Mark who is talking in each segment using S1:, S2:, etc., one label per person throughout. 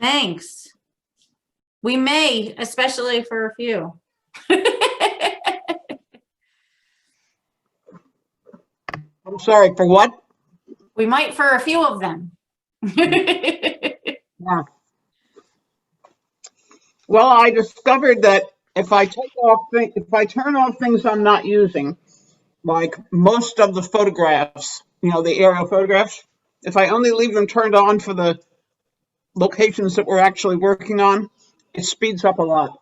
S1: Thanks. We may, especially for a few.
S2: I'm sorry, for what?
S1: We might for a few of them.
S2: Well, I discovered that if I take off, thi- if I turn off things I'm not using, like most of the photographs, you know, the aerial photographs, if I only leave them turned on for the locations that we're actually working on, it speeds up a lot.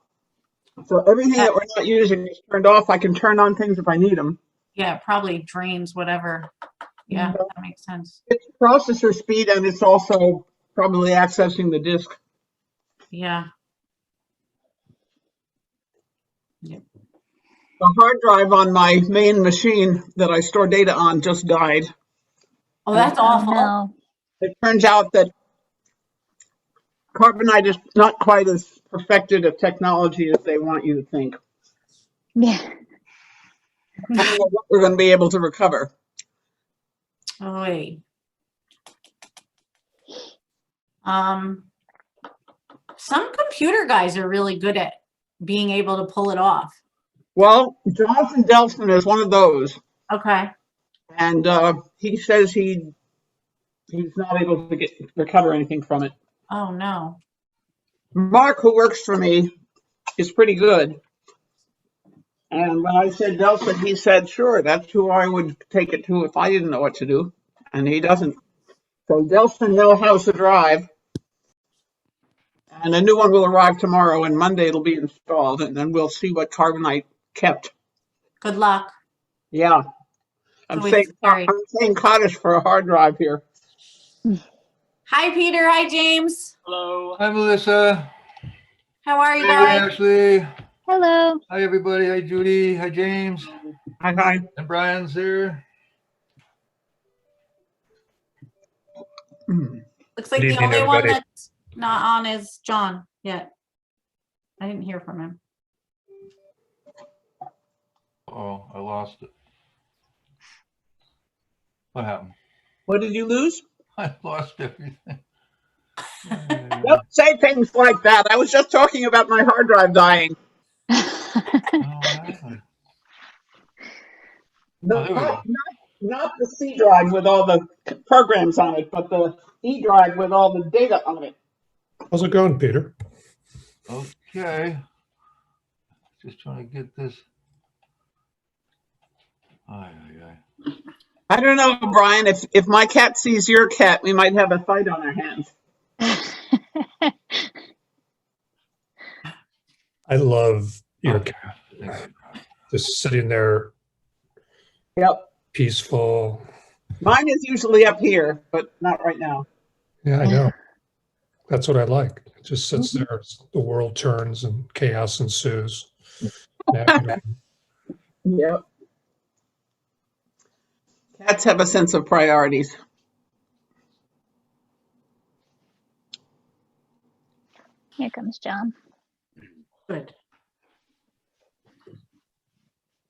S2: So everything that we're not using is turned off. I can turn on things if I need them.
S1: Yeah, probably dreams, whatever. Yeah, that makes sense.
S2: It's processor speed and it's also probably accessing the disk.
S1: Yeah,
S2: The hard drive on my main machine that I store data on just died.
S1: oh, that's awful.
S3: no.
S2: it turns out that carbonite is not quite as perfected a technology as they want you to think.
S3: Yeah.
S2: I don't know what We're going to be able to recover.
S1: Oh, wait. Um, some computer guys are really good at being able to pull it off.
S2: Well, Jonathan Delson is one of those,
S1: Okay,
S2: and uh, he says he he's not able to get recover anything from it.
S1: oh, no.
S2: Mark, who works for me, is pretty good. And when I said Delson, he said, sure, that's who I would take it to if I didn't know what to do. And he doesn't. So Delson knows how to drive. And a new one will arrive tomorrow and Monday it'll be installed and then we'll see what carbonite kept.
S1: Good luck.
S2: Yeah. I'm
S1: So
S2: saying,
S1: it's- Sorry.
S2: I'm saying cottage for a hard drive here.
S1: Hi, Peter. Hi, James.
S4: Hello.
S5: Hi, Melissa.
S1: How are you
S5: Hi,
S1: guys?
S5: Ashley.
S3: Hello.
S5: Hi, everybody. Hi, Judy. Hi, James.
S2: Hi, hi.
S5: And Brian's here.
S2: Hmm.
S1: Looks like
S6: Good
S1: the
S6: evening,
S1: only one
S6: everybody.
S1: that's not on is John yet. I didn't hear from him.
S5: Oh, I lost it. What happened?
S2: What did you lose?
S5: I lost everything.
S2: Don't say things like that. I was just talking about my hard drive dying.
S5: Oh, what happened?
S2: No,
S5: Oh, there we
S2: not, not, not the C drive with all the c- programs on it, but the E drive with all the data on it.
S6: How's it going, Peter?
S5: Okay. Just trying to get this. Aye, aye, aye.
S2: I don't know, Brian. If if my cat sees your cat, we might have a fight on our hands.
S6: I love your
S5: Okay.
S6: just sitting there
S2: Yep.
S6: peaceful.
S2: Mine is usually up here, but not right now.
S6: Yeah, I know. Mm-hmm. That's what I like. It just sits there. The world turns and chaos ensues. Yeah,
S2: Yep. Cats have a sense of priorities.
S3: Here comes John.
S1: Good.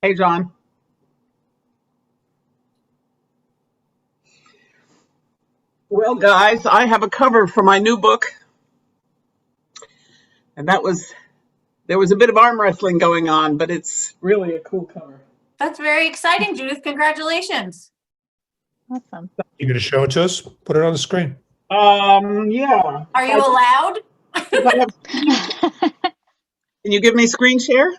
S2: Hey, John. Well, guys, I have a cover for my new book. And that was, there was a bit of arm wrestling going on, but it's really a cool cover.
S1: That's very exciting, Judith. Congratulations.
S3: Awesome.
S6: you going to show it to us? Put it on the screen.
S2: Um, yeah.
S1: Are you allowed?
S2: If I have- Can you give me screen share?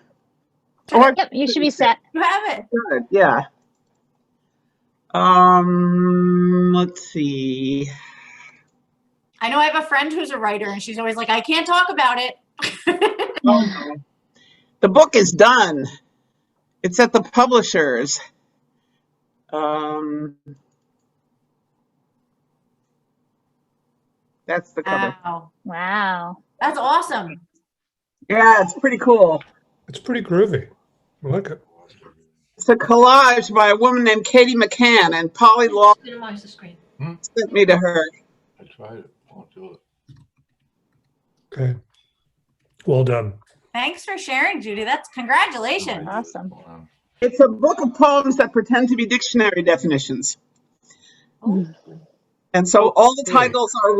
S2: Or,
S3: Yep, you should be set.
S1: You have it.
S2: Good, yeah. Um, let's see.
S1: I know I have a friend who's a writer and she's always like, I can't talk about it.
S2: The book is done. It's at the publishers. Um, that's the
S7: Uh,
S2: cover.
S1: Wow.
S3: Wow.
S1: That's awesome.
S2: yeah, it's pretty cool.
S6: It's pretty groovy. I like it.
S2: It's a collage by a woman named Katie McCann, and Polly Law
S7: Minimize the screen.
S2: sent me to her.
S5: I tried it. Won't do it.
S6: Okay. Well done.
S1: Thanks for sharing, Judy. That's congratulations.
S3: Awesome.
S5: Hold on.
S2: It's a book of poems that pretend to be dictionary definitions.
S7: Oh.
S1: Ooh.
S2: And so all the
S5: Hmm.
S2: titles are